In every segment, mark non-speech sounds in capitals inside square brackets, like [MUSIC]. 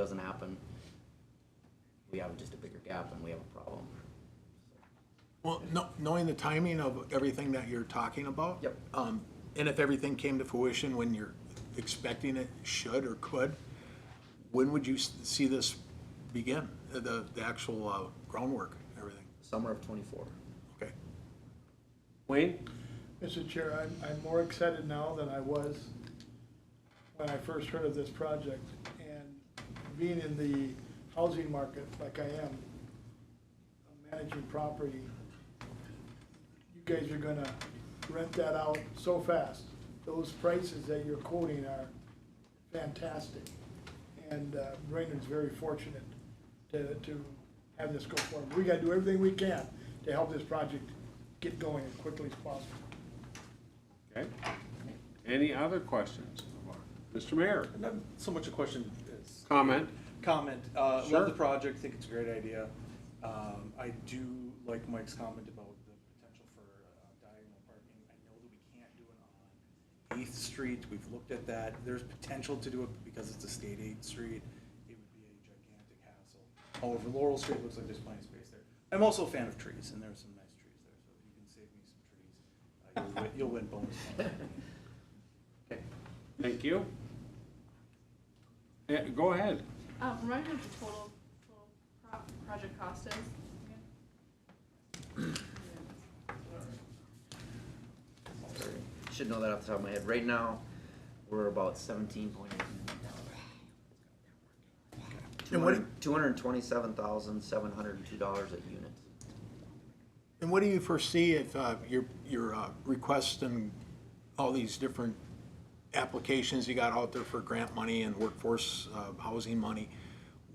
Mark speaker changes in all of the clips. Speaker 1: doesn't happen, we have just a bigger gap and we have a problem.
Speaker 2: Well, no, knowing the timing of everything that you're talking about.
Speaker 1: Yep.
Speaker 2: Um, and if everything came to fruition when you're expecting it should or could, when would you s- see this begin, Uh, the, the actual uh, groundwork, everything?
Speaker 1: Summer of twenty-four.
Speaker 2: Okay.
Speaker 3: Wayne?
Speaker 4: Mr. Chair, I'm, I'm more excited now than I was when I first heard of this project. And being in the housing market like I am, managing property, you guys are gonna rent that out so fast. Those prices that you're quoting are fantastic. And uh, Brainerd's very fortunate to, to have this go forward. We gotta do everything we can to help this project get going as quickly as possible.
Speaker 3: Okay. Any other questions? Mr. Mayor,
Speaker 5: Not so much a question as
Speaker 3: comment?
Speaker 5: comment. Uh,
Speaker 3: Sure.
Speaker 5: love the project, think it's a great idea. Um, I do like Mike's comment about the potential for uh, diagonal parking. I know that we can't do it on Eighth Street. We've looked at that. There's potential to do it because it's a state aid street. It would be a gigantic hassle. However, Laurel Street looks like there's plenty of space there. I'm also a fan of trees and there are some nice trees there, so if you can save me some trees, uh, you'll win- you'll win bonus. points.
Speaker 3: Thank you. Yeah, go ahead.
Speaker 6: Um, remind me what the total, total pro- project cost is.
Speaker 1: [LAUGHS] Should know that off the top of my head. Right now, we're about seventeen point eight million
Speaker 2: And
Speaker 1: dollars.
Speaker 2: what-
Speaker 1: Two hundred and twenty-seven thousand, seven hundred and two dollars a unit.
Speaker 2: And what do you foresee if uh, your, your uh, requests and all these different applications you got out there for grant money and workforce uh, housing money?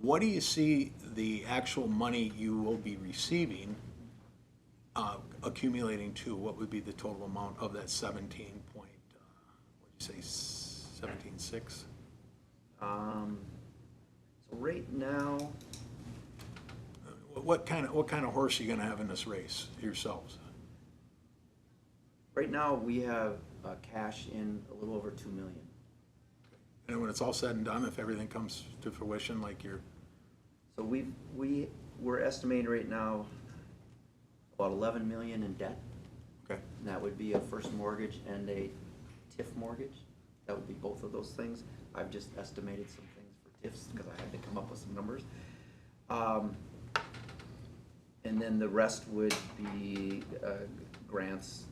Speaker 2: What do you see the actual money you will be receiving uh, accumulating to? What would be the total amount of that 17 point, uh, what'd you say, 17.6?
Speaker 1: Um, so right now,
Speaker 2: Uh, What kind of, what kind of horse are you going to have in this race yourselves?
Speaker 1: right now, we have, uh, cash in a little over two million.
Speaker 2: And when it's all said and done, if everything comes to fruition like you're
Speaker 1: So we, we, we're estimating right now about eleven million in debt.
Speaker 2: Okay.
Speaker 1: And that would be a first mortgage and a TIF mortgage. That would be both of those things. I've just estimated some things for TIFs because I had to come up with some numbers. Um, And then the rest would be uh, grants.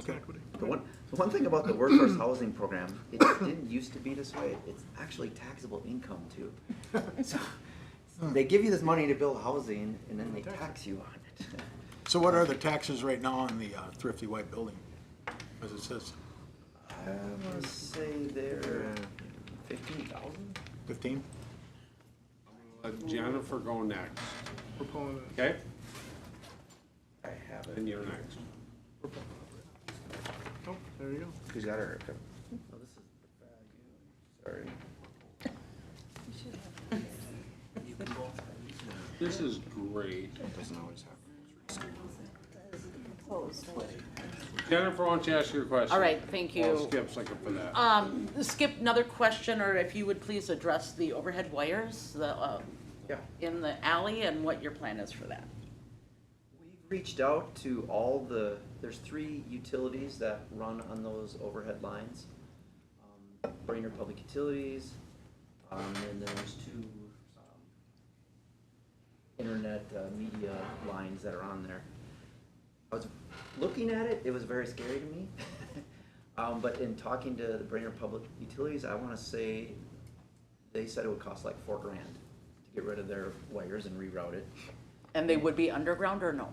Speaker 2: Okay. [LAUGHS]
Speaker 1: The one, the one thing about the workforce housing program, it didn't used to be this way. It's actually taxable income too. So They give you this money to build housing and then they tax you on it.
Speaker 2: So what are the taxes right now on the uh, thrifty white building? As it says,
Speaker 1: [LAUGHS] I want to say they're fifteen thousand?
Speaker 2: fifteen?
Speaker 3: Let Jennifer go next.
Speaker 4: proponent.
Speaker 3: Okay?
Speaker 1: I have it.
Speaker 3: And you're next.
Speaker 4: Oh, there you go.
Speaker 1: Who's got her? Oh, this is the value. Sorry.
Speaker 3: This is great. Jennifer, why don't you ask your question?
Speaker 7: All right, thank you.
Speaker 3: Paul Skip's looking for that.
Speaker 7: Um, Skip, another question, or if you would please address the overhead wires, the, uh,
Speaker 1: Yeah.
Speaker 7: in the alley and what your plan is for that.
Speaker 1: We've reached out to all the, there's three utilities that run on those overhead lines. Um, Brainerd Public Utilities, um, and then there's two, um, internet, uh, media lines that are on there. I was looking at it, it was very scary to me. [LAUGHS] Um, but in talking to the Brainerd Public Utilities, I wanna say, they said it would cost like four grand to get rid of their wires and reroute it.
Speaker 7: And they would be underground or no?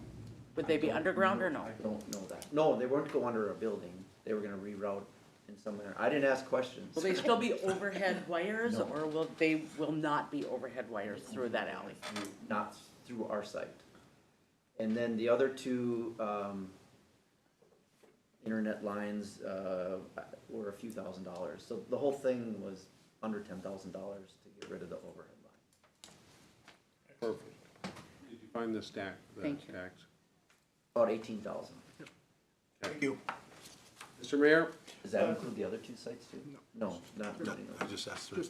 Speaker 7: Would they be underground or no?
Speaker 1: I don't know that. No, they weren't go under a building. They were gonna reroute in some manner. I didn't ask questions.
Speaker 7: Will they still be overhead wires,
Speaker 1: No.
Speaker 7: or will, they will not be overhead wires through that alley?
Speaker 1: [LAUGHS] Not through our site. And then the other two, um, internet lines, uh, were a few thousand dollars. So the whole thing was under ten thousand dollars to get rid of the overhead line.
Speaker 3: Perfect. Did you find the stack? the
Speaker 7: Thank you.
Speaker 3: stacks?
Speaker 1: About eighteen thousand.
Speaker 2: Thank you.
Speaker 3: Mr. Mayor?
Speaker 1: Does that include the other two sites too? No. not really, no.
Speaker 2: I just asked her.
Speaker 3: Just